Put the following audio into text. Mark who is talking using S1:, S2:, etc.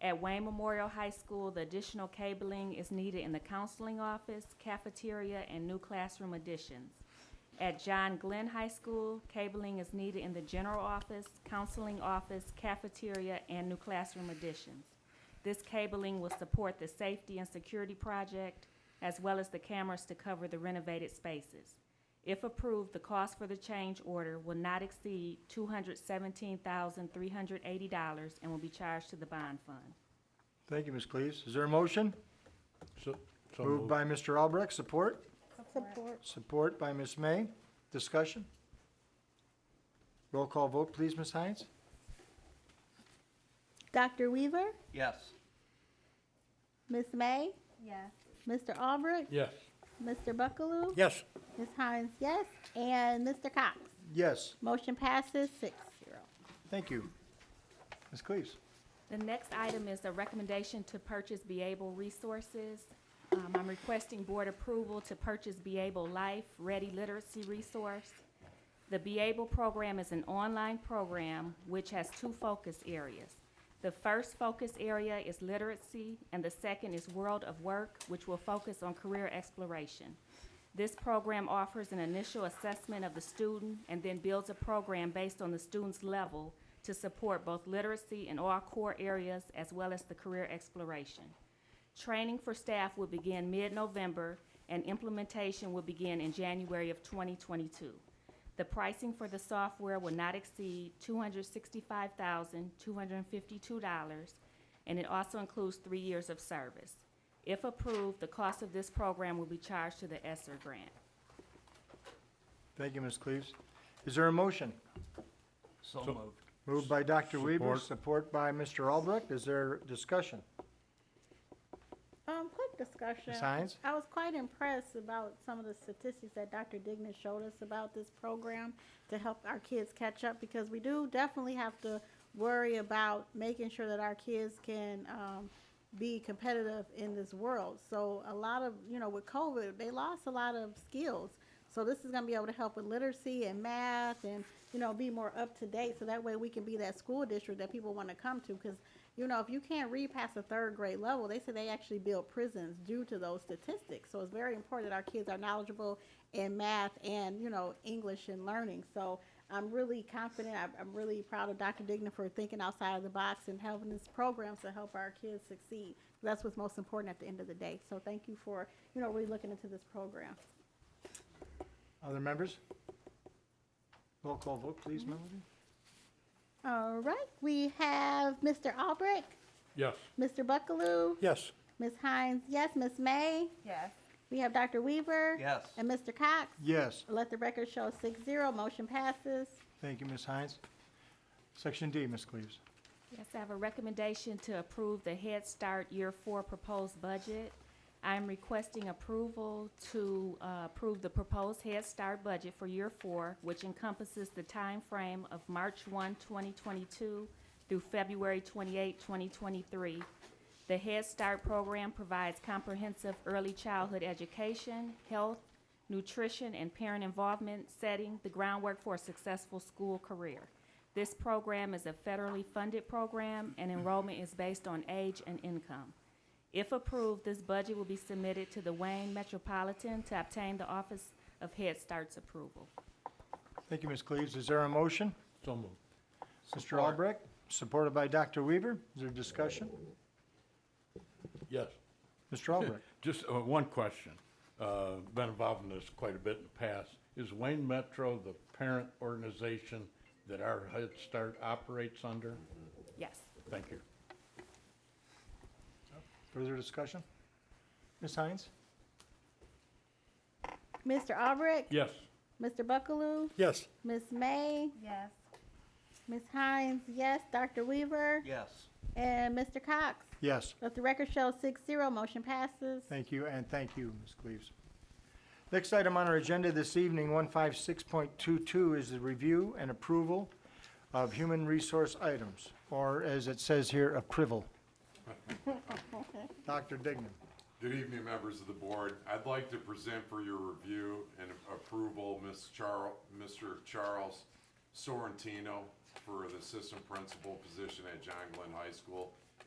S1: At Wayne Memorial High School, the additional cabling is needed in the counseling office, cafeteria, and new classroom additions. At John Glenn High School, cabling is needed in the general office, counseling office, cafeteria, and new classroom additions. This cabling will support the safety and security project, as well as the cameras to cover the renovated spaces. If approved, the cost for the change order will not exceed two hundred seventeen thousand, three hundred eighty dollars and will be charged to the bond fund.
S2: Thank you, Ms. Cleaves. Is there a motion?
S3: So, so
S2: Moved
S3: moved.
S2: by Mr. Albrecht, support?
S4: Support.
S2: Support by Ms. May. Discussion? Roll call vote, please, Ms. Hines?
S4: Dr. Weaver,
S5: Yes.
S4: Ms. May,
S6: Yes.
S4: Mr. Albrecht,
S3: Yes.
S4: Mr. Buckaloo,
S3: Yes.
S4: Ms. Hines, yes, and Mr. Cox.
S2: Yes,
S4: Motion passes six zero.
S2: thank you. Ms. Cleaves?
S1: The next item is a recommendation to purchase Beable Resources. Um, I'm requesting board approval to purchase Beable Life Ready Literacy Resource. The Beable program is an online program which has two focus areas. The first focus area is literacy, and the second is World of Work, which will focus on career exploration. This program offers an initial assessment of the student and then builds a program based on the student's level to support both literacy in all core areas as well as the career exploration. Training for staff will begin mid-November and implementation will begin in January of 2022. The pricing for the software will not exceed $265,252, and it also includes three years of service. If approved, the cost of this program will be charged to the ESSER grant.
S2: Thank you, Ms. Cleaves. Is there a motion?
S5: So
S3: So-
S5: moved.
S2: Moved by Dr. Weaver,
S3: Support.
S2: support by Mr. Albrecht. Is there discussion?
S4: Um, quick discussion.
S2: Ms. Hines?
S4: I was quite impressed about some of the statistics that Dr. Dignan showed us about this program to help our kids catch up because we do definitely have to worry about making sure that our kids can um, be competitive in this world. So a lot of you know with COVID, they lost a lot of skills. So this is going to be able to help with literacy and math and you know be more up to date. So that way we can be that school district that people want to come to because you know if you can't read past the third grade level, they say they actually build prisons due to those statistics. So it's very important that our kids are knowledgeable in math and you know English and learning. So I'm really confident. I'm, I'm really proud of Dr. Digna for thinking outside of the box and having this program to help our kids succeed. That's what's most important at the end of the day. So thank you for you know really looking into this program.
S2: Other members? Roll call vote, please, Melody?
S4: All right, we have Mr. Albrecht,
S3: Yes.
S4: Mr. Buckaloo,
S3: Yes.
S4: Ms. Hines, yes, Ms. May.
S6: Yes.
S4: We have Dr. Weaver.
S5: Yes.
S4: And Mr. Cox.
S2: Yes,
S4: Let the record show six zero, motion passes.
S2: thank you, Ms. Hines. Section D, Ms. Cleaves.
S1: Yes, I have a recommendation to approve the Head Start Year Four proposed budget. I'm requesting approval to uh, approve the proposed Head Start budget for Year Four, which encompasses the time frame of March 1, 2022 through February 28, 2023. The Head Start program provides comprehensive early childhood education, health, nutrition, and parent involvement, setting the groundwork for a successful school career. This program is a federally funded program, and enrollment is based on age and income. If approved, this budget will be submitted to the Wayne Metropolitan to obtain the Office of Head Start's approval.
S2: Thank you, Ms. Cleaves. Is there a motion?
S3: So moved.
S2: Mr. Albrecht, supported by Dr. Weaver. Is there discussion?
S3: Yes.
S2: Mr. Albrecht?
S3: Just uh, one question. Uh, Been involved in this quite a bit in the past. Is Wayne Metro the parent organization that our Head Start operates under?
S1: Yes.
S3: Thank you.
S2: Further discussion? Ms. Hines?
S4: Mr. Albrecht.
S3: Yes.
S4: Mr. Buckaloo,
S3: Yes.
S4: Ms. May,
S6: Yes.
S4: Ms. Hines, yes, Dr. Weaver,
S5: Yes.
S4: and Mr. Cox.
S2: Yes,
S4: Let the record show six zero, motion passes.
S2: thank you, and thank you, Ms. Cleaves. Next item on our agenda this evening, 156.22, is the review and approval of human resource items, or as it says here, approval. Dr. Dignan.
S7: Good evening, members of the board. I'd like to present for your review and approval, Ms. Charles, Mr. Charles Sorrentino for the assistant principal position at John Glenn High School.